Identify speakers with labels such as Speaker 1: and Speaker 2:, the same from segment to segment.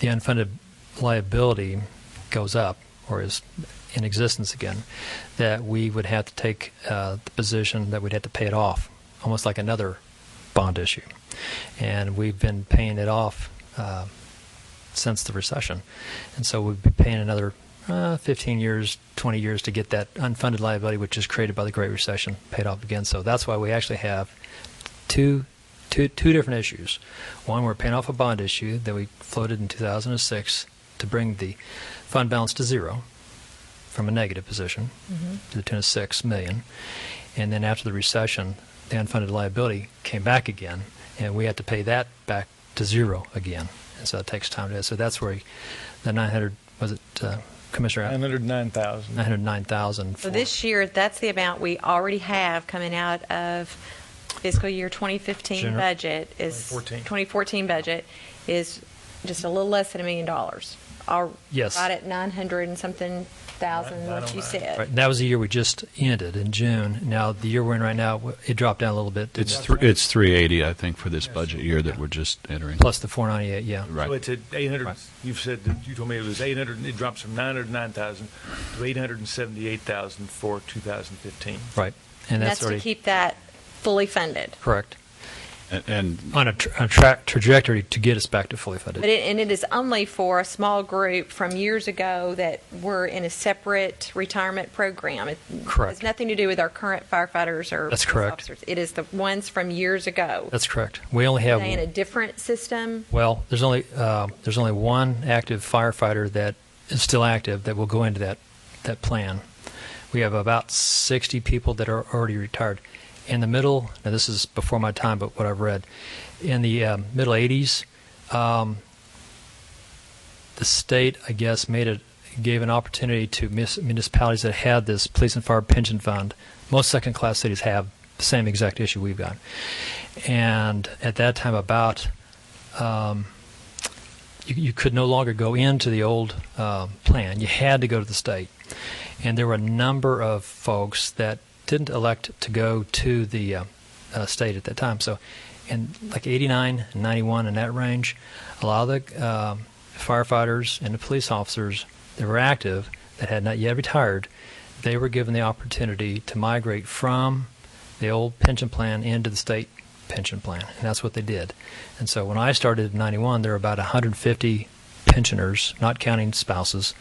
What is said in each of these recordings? Speaker 1: the unfunded liability goes up or is in existence again, that we would have to take uh, the position that we'd have to pay it off, almost like another bond issue. And we've been paying it off uh, since the recession. And so we'd be paying another uh, 15 years, 20 years to get that unfunded liability, which is created by the Great Recession, paid off again. So that's why we actually have two, two, two different issues. One, we're paying off a bond issue that we floated in 2006 to bring the fund balance to zero from a negative position
Speaker 2: Mm-hmm.
Speaker 1: to the tune of six million. And then after the recession, the unfunded liability came back again, and we had to pay that back to zero again. And so it takes time to. So that's where the 900 was it, uh, Commissioner?
Speaker 3: 909,000.
Speaker 1: 909,000.
Speaker 2: So
Speaker 1: for-
Speaker 2: this year, that's the amount we already have coming out of fiscal year 2015
Speaker 1: Gener-
Speaker 2: budget is.
Speaker 3: 2014.
Speaker 2: 2014 budget is just a little less than a million dollars. Or
Speaker 1: Yes.
Speaker 2: Right at 900 and something thousand,
Speaker 3: Right,
Speaker 2: what you
Speaker 3: 909.
Speaker 2: said.
Speaker 1: Right, and that was the year we just ended in June. Now the year we're in right now, it dropped down a little bit. didn't
Speaker 4: It's
Speaker 1: it?
Speaker 4: thr it's 380, I think, for this budget year that we're just entering.
Speaker 1: plus the 498. Yeah.
Speaker 4: Right.
Speaker 3: So it's at 800,
Speaker 1: Right.
Speaker 3: you've said, that you told me it was 800, it drops from 909,000 to 878,000 for 2015.
Speaker 1: Right. And
Speaker 2: And
Speaker 1: that's,
Speaker 2: that's to
Speaker 1: already
Speaker 2: keep that fully funded.
Speaker 1: correct
Speaker 4: And- And
Speaker 1: on a, tra- a tra- trajectory to get us back to fully funded.
Speaker 2: But it, and it is only for a small group from years ago that were in a separate retirement program. It
Speaker 1: Correct.
Speaker 2: has nothing to do with our current firefighters or
Speaker 1: That's
Speaker 2: police
Speaker 1: correct.
Speaker 2: officers. It is the ones from years ago.
Speaker 1: That's correct. We only have
Speaker 2: Are they in a different system?
Speaker 1: Well, there's only uh, there's only one active firefighter that is still active that will go into that that plan. We have about 60 people that are already retired. In the middle, now this is before my time, but what I've read, in the um, middle 80s, um, the state, I guess, made it gave an opportunity to mis- municipalities that had this police and fire pension fund. Most second-class cities have the same exact issue we've got, and at that time, about you, you could no longer go into the old uh, plan. You had to go to the state, and there were a number of folks that didn't elect to go to the uh, uh, state at that time. So, in like 89, 91, in that range, a lot of the um firefighters and the police officers that were active that had not yet retired, they were given the opportunity to migrate from the old pension plan into the state pension plan, and that's what they did. And so when I started in '91, there were about 150 pensioners, not counting spouses,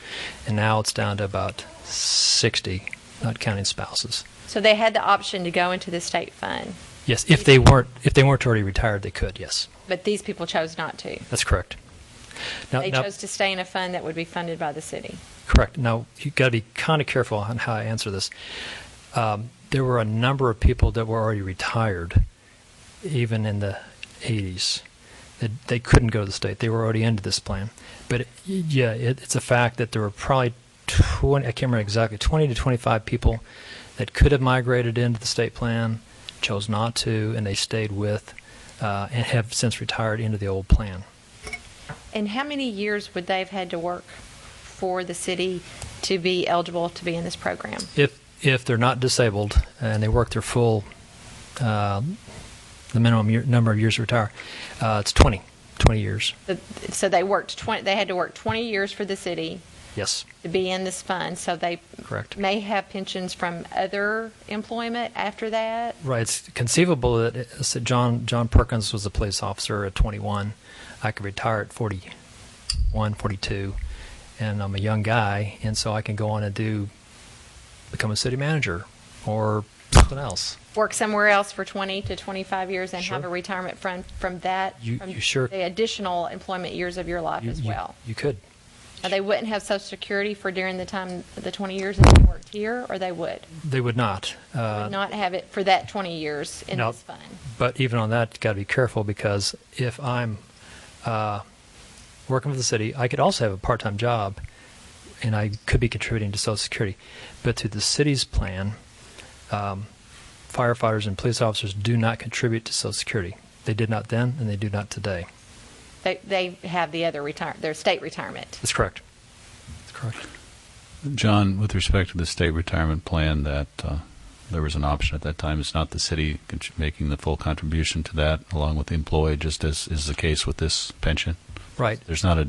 Speaker 1: and now it's down to about 60, not counting spouses.
Speaker 2: So they had the option to go into the state fund,
Speaker 1: Yes, if they weren't if they weren't already retired, they could. Yes,
Speaker 2: but these people chose not to.
Speaker 1: that's correct. Now,
Speaker 2: They
Speaker 1: now-
Speaker 2: chose to stay in a fund that would be funded by the city.
Speaker 1: Correct. Now, you got to be kind of careful on how I answer this. Um, there were a number of people that were already retired, even in the 80s. They, they couldn't go to the state. They were already into this plan. But it, yeah, it, it's a fact that there were probably 20, I can't remember exactly, 20 to 25 people that could have migrated into the state plan, chose not to, and they stayed with uh, and have since retired into the old plan.
Speaker 2: And how many years would they have had to work for the city to be eligible to be in this program?
Speaker 1: If if they're not disabled and they work their full, uh, the minimum year, number of years to retire, uh, it's 20, 20 years.
Speaker 2: The- So they worked 20, they had to work 20 years for the city
Speaker 1: Yes,
Speaker 2: to be in this fund, so they
Speaker 1: correct.
Speaker 2: may have pensions from other employment after that?
Speaker 1: Right. It's conceivable that it- so John John Perkins was a police officer at 21. I could retire at 41, 42, and I'm a young guy, and so I can go on and do become a city manager or something else.
Speaker 2: Work somewhere else for 20 to 25 years and have
Speaker 1: Sure.
Speaker 2: a retirement fund from that?
Speaker 1: You-
Speaker 2: from
Speaker 1: you sure-
Speaker 2: The additional employment years of your life
Speaker 1: You-
Speaker 2: as
Speaker 1: you-
Speaker 2: well?
Speaker 1: you could.
Speaker 2: Now, they wouldn't have Social Security for during the time, the 20 years that they worked here, or they would?
Speaker 1: They would not.
Speaker 2: They
Speaker 1: Uh,
Speaker 2: Would not have it for that 20 years in
Speaker 1: No.
Speaker 2: this fund?
Speaker 1: But even on that, got to be careful because if I'm uh, working for the city, I could also have a part-time job, and I could be contributing to Social Security. But through the city's plan, um, firefighters and police officers do not contribute to Social Security. They did not then, and they do not today.
Speaker 2: They, they have the other retire, their state retirement.
Speaker 1: That's correct. That's correct.
Speaker 4: John, with respect to the state retirement plan, that uh, there was an option at that time. It's not the city con- making the full contribution to that along with the employee, just as is the case with this pension.
Speaker 1: Right.
Speaker 4: There's not a